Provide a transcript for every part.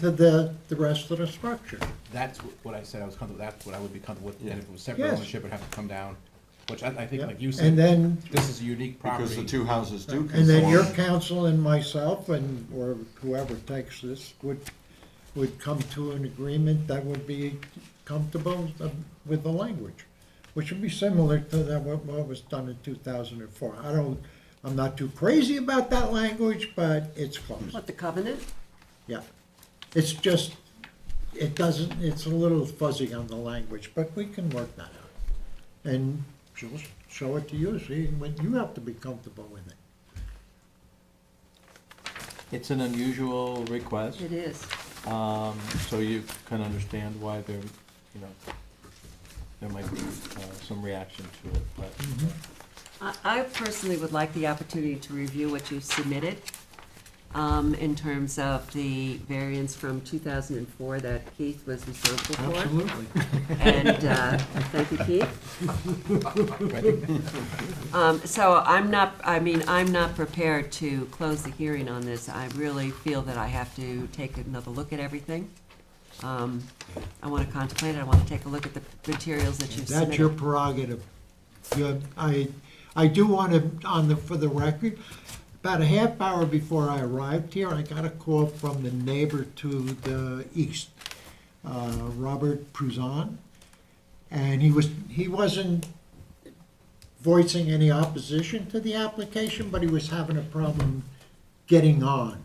to the, the rest of the structure. That's wh- what I said I was comfortable, that's what I would be comfortable with, and if it was separate Yes. ownership, it'd have to come down, which I, I think, Yep. like you And said, then, this is a unique Because the property. two houses do conform. and then your council and myself and, or whoever takes this would, would come to an agreement that would be comfortable uh, with the language, which would be similar to that, what, what was done in two thousand and four. I don't, I'm not too crazy about that language, but it's close, What, the covenant? yeah. It's just, it doesn't, it's a little fuzzy on the language, but we can work that out. and she'll show it to you, see, when you have to be comfortable with it. It's an unusual request, It is. um, so you can understand why there, you know, there might be uh, some reaction to it, but uh, I- I personally would like the opportunity to review what you submitted um, in terms of the variance from 2004 that Keith was responsible for. And uh, thank you, Keith. Um, So I'm not, I mean, I'm not prepared to close the hearing on this. I really feel that I have to take another look at everything. Um, I want to contemplate it, I want to take a look at the materials that you've submitted. That's your prerogative. You have- I, I do want to, on the, for the record, about a half hour before I arrived here, I got a call from the neighbor to the east, uh, Robert Pruzan. And he was, he wasn't voicing any opposition to the application, but he was having a problem getting on.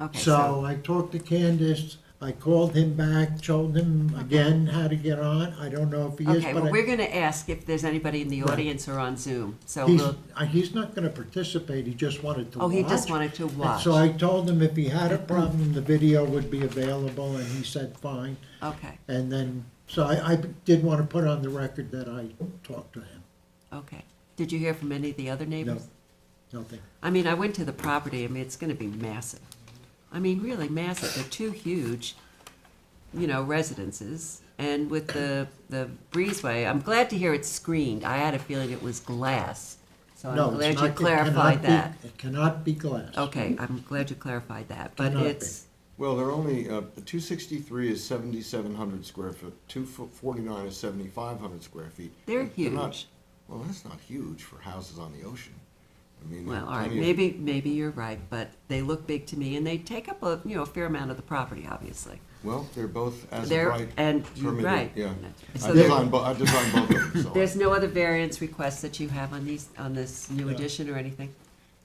Okay, So I talked to Candace, I called him back, told him again how to get on, I don't know if he is, Okay, well, but we're I- gonna ask if there's anybody in the Right. audience or on Zoom, so he's, we'll, I- he's not gonna participate, he just wanted to watch. oh, he just wanted to And watch. so I told him if he had a problem, the video would be available, and he said, fine, Okay, and then, so I, I did wanna put on the record that I talked to him, okay. Did you hear from any of the other neighbors? nothing. I mean, I went to the property, I mean, it's gonna be massive. I mean, really massive, they're two huge, you know, residences, and with the, the breezeway, I'm glad to hear it's screened, I had a feeling it was glass. So No, I'm it's glad not- you it cannot clarified be- that. It cannot be glass. Okay, I'm glad you clarified that, but Cannot be. it's, Well, they're only, uh, two sixty-three is seventy-seven hundred square foot, two forty-nine is seventy-five hundred square feet. they're not- huge. Well, that's not huge for houses on the ocean. I mean. Well, all right, plenty of- maybe, maybe you're right, but they look big to me, and they take up a, you know, a fair amount of the property, obviously. Well, they're both as of They're, right and, you're permitted, right. yeah. I So there, designed, bo- I designed both of them, so. there's no other variance requests that you have on these, on this new No. addition or anything?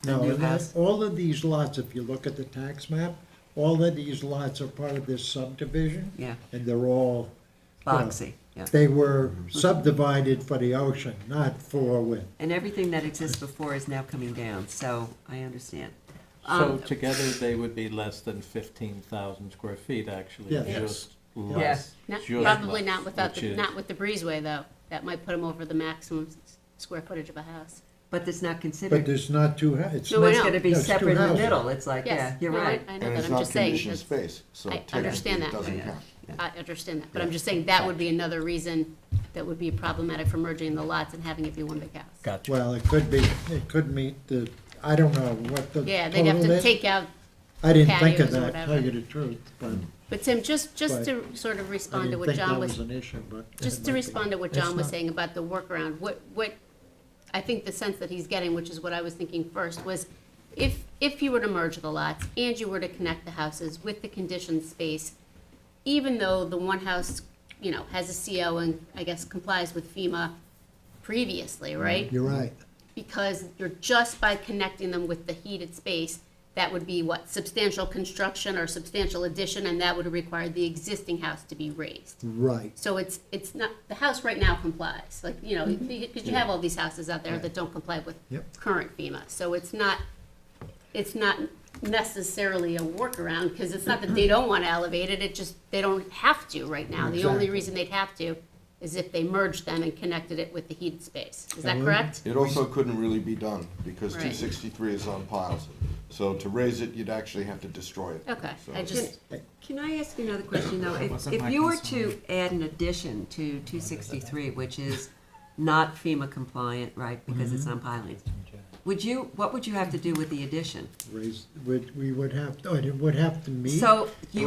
The No, new and that- house? all of these lots, if you look at the tax map, all of these lots are part of this subdivision. Yeah, And they're all, Yeah. boxy, yeah. they were subdivided for the ocean, not for wind. And everything that exists before is now coming down, so I understand. So Um, together, they would be less than fifteen thousand square feet, actually, Yeah. Yes. just Yeah. less. Not- just Probably less, not without, which the is- not with the breezeway, though. That might put them over the maximum s- square footage of a house. But it's not But considered, there's not two, hou- it's, No, so I it's know. gonna be No, it's two separate in the houses. middle, it's like, yeah, Yes, you're no, I- right. I know And that, it's I'm not just saying. conditioned that's- space, so I technically understand it that. doesn't Yeah. count. I understand that, but I'm just saying that would be another reason that would be problematic for merging the lots and having it be one big house. Gotcha. well, it could be, it could meet the, I don't know what the total is. Yeah, they'd have to take out, I didn't think of patios or that, tell you whatever. the truth, but but Tim, just, just Right. to sort of I respond to didn't what think John that was was an issue, but. it Just might to be. respond to what It's John was not. saying about the workaround, what, what, I think the sense that he's getting, which is what I was thinking first, was if, if you were to merge the lots and you were to connect the houses with the conditioned space, even though the one house, you know, has a CO and I guess complies with FEMA previously, right? You're right, Because you're just by connecting them with the heated space, that would be what, substantial construction or substantial addition, and that would require the existing house to be raised. right. So it's, it's not, the house right now complies, like, you know, because you have all these houses out there that don't comply with Mm-hmm. Yep. current FEMA. So it's not, it's not necessarily a workaround, because it's not that they don't want to elevate it, it just, they don't have to right now. The Exactly. only reason they'd have to is if they merged them and connected it with the heated space. Is that Well, correct? It also couldn't really be done, because Right. two sixty-three is on piles. So to raise it, you'd actually have to destroy it. Okay, So- I just, Can I ask you another question, though? If, if you were to add an addition to two sixty-three, which is not FEMA compliant, right, because it's on pilings, would you, what would you have to do with the addition? Raise, would, we would have, oh, it would have to meet. So you